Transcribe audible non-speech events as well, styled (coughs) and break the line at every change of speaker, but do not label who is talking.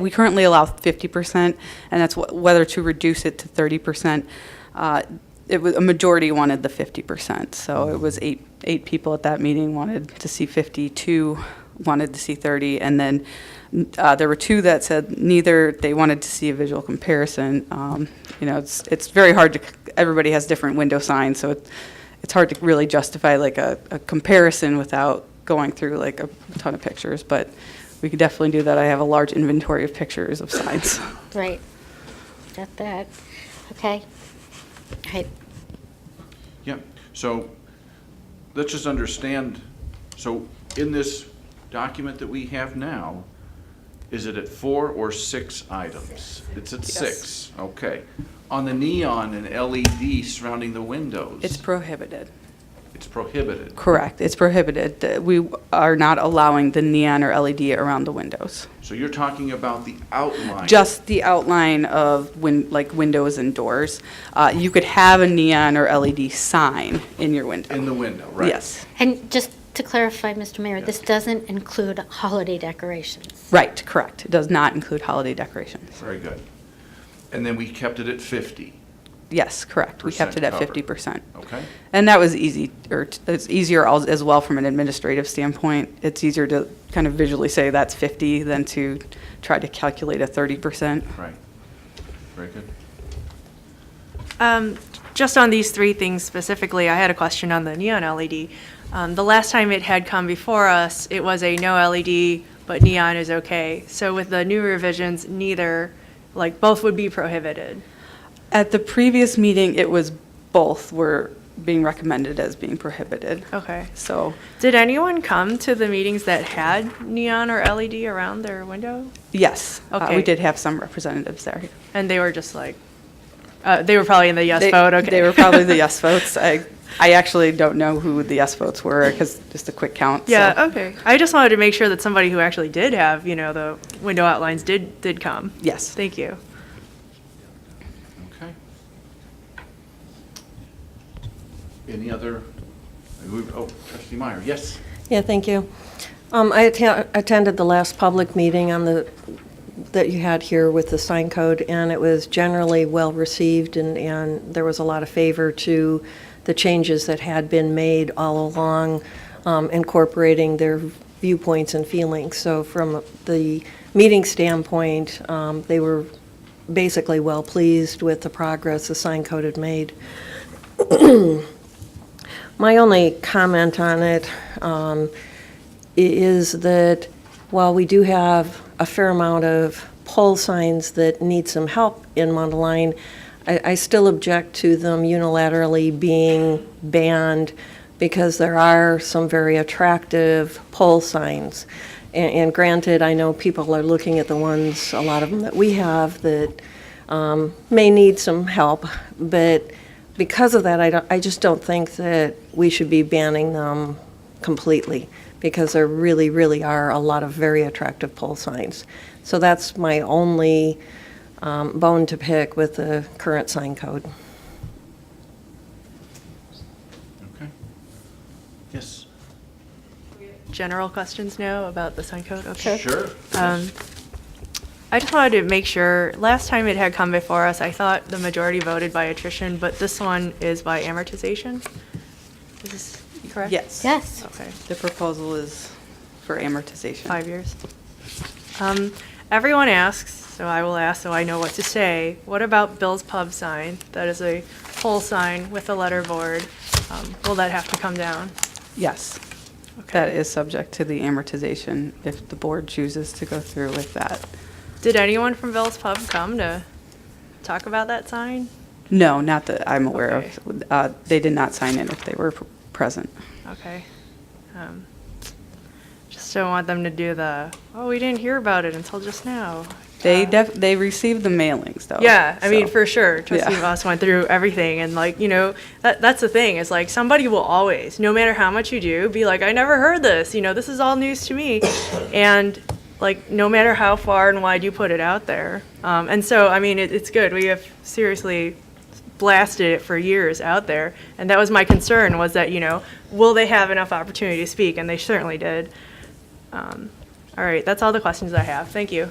We currently allow 50%, and that's wh- whether to reduce it to 30%. Uh, It was, a majority wanted the 50%, so it was eight, eight people at that meeting wanted to see 50, two wanted to see 30, and then n- uh, there were two that said neither, they wanted to see a visual comparison. Um, You know, it's, it's very hard to, c- everybody has different window signs, so it's, it's hard to really justify like a, a comparison without going through like a ton of pictures, but we could definitely do that. I have a large inventory of pictures of signs.
Right. Got that. Okay. All right.
Yeah, so let's just understand, so in this document that we have now, is it at four or six items? It's at
Yes.
six, okay. On the neon and LED surrounding the windows?
It's prohibited.
It's prohibited.
Correct. It's prohibited. Uh, We are not allowing the neon or LED around the windows.
So you're talking about the outline?
Just the outline of win, like windows and doors. Uh, you could have a neon or LED sign in your window.
In the window, right?
Yes.
And just to clarify, Mr. Mayor,
Yeah.
this doesn't include holiday decorations.
Right, correct. It does not include holiday decorations.
Very good. And then we kept it at fifty,
Yes, correct. We kept
Percent
it at
covered.
fifty percent.
okay?
And that was easy, or t- it's easier als- as well from an administrative standpoint. It's easier to kind of visually say that's 50 than to try to calculate a 30%.
Right. Very good.
Um, Just on these three things specifically, I had a question on the neon LED. Um, The last time it had come before us, it was a no LED, but neon is okay. So with the new revisions, neither, like, both would be prohibited.
At the previous meeting, it was both were being recommended as being prohibited.
Okay.
So,
Did anyone come to the meetings that had neon or LED around their window?
yes, uh, we
Okay.
did have some representatives there.
And they were just like, uh, they were probably in the yes
They-
vote, okay.
They were probably
(laughs)
the yes votes. I, I actually don't know who the yes votes were, because just a quick count. so-
Yeah, oh, okay. I just wanted to make sure that somebody who actually did have, you know, the window outlines did, did come.
Yes.
Thank you.
Okay. Any other, oh, trustee Meyer, yes?
Yeah, thank you. Um, I atta- attended the last public meeting on the, that you had here with the sign code, and it was generally well-received, and, and there was a lot of favor to the changes that had been made all along, um, incorporating their viewpoints and feelings. So from the meeting standpoint, um, they were basically well-pleased with the progress the sign code had made. My only comment on it um, i- is that while we do have a fair amount of pole signs that need some help in Mundaline, I, I still object to them unilaterally being banned because there are some very attractive pole signs. A- And granted, I know people are looking at the ones, a lot of them that we have, that um, may need some help, but because of that, I don't, I just don't think that we should be banning them completely, because there really, really are a lot of very attractive pole signs. So that's my only um, bone to pick with the current sign code.
Okay. Yes.
general questions now about the sign code? Okay.
Sure.
Um, I just wanted to make sure, last time it had come before us, I thought the majority voted by attrition, but this one is by amortization? Is this correct?
Yes.
Yes.
Okay,
The proposal is for amortization.
five years. Um, Everyone asks, so I will ask so I know what to say, what about Bill's Pub sign? That is a pole sign with a letter board. Um, Will that have to come down?
Yes.
Okay.
That is subject to the amortization if the board chooses to go through with that.
Did anyone from Bill's Pub come to talk about that sign?
No, not that I'm aware
Okay.
of. Uh, They did not sign in if they were pr- present.
Okay. Um, Just don't want them to do the, oh, we didn't hear about it until just now.
They
Uh,
def, they received the mailings, though.
Yeah, I mean,
so-
for sure. Trustee
Yeah.
Voss went through everything and like, you know, that, that's the thing is like somebody will always, no matter how much you do, be like, I never heard this, you know, this is all news
(coughs)
to me. And like, no matter how far and wide you put it out there. Um, and so, I mean, it, it's good. We have seriously blasted it for years out there. And that was my concern was that, you know, will they have enough opportunity to speak? And they certainly did. Um, all right, that's all the questions I have. Thank you.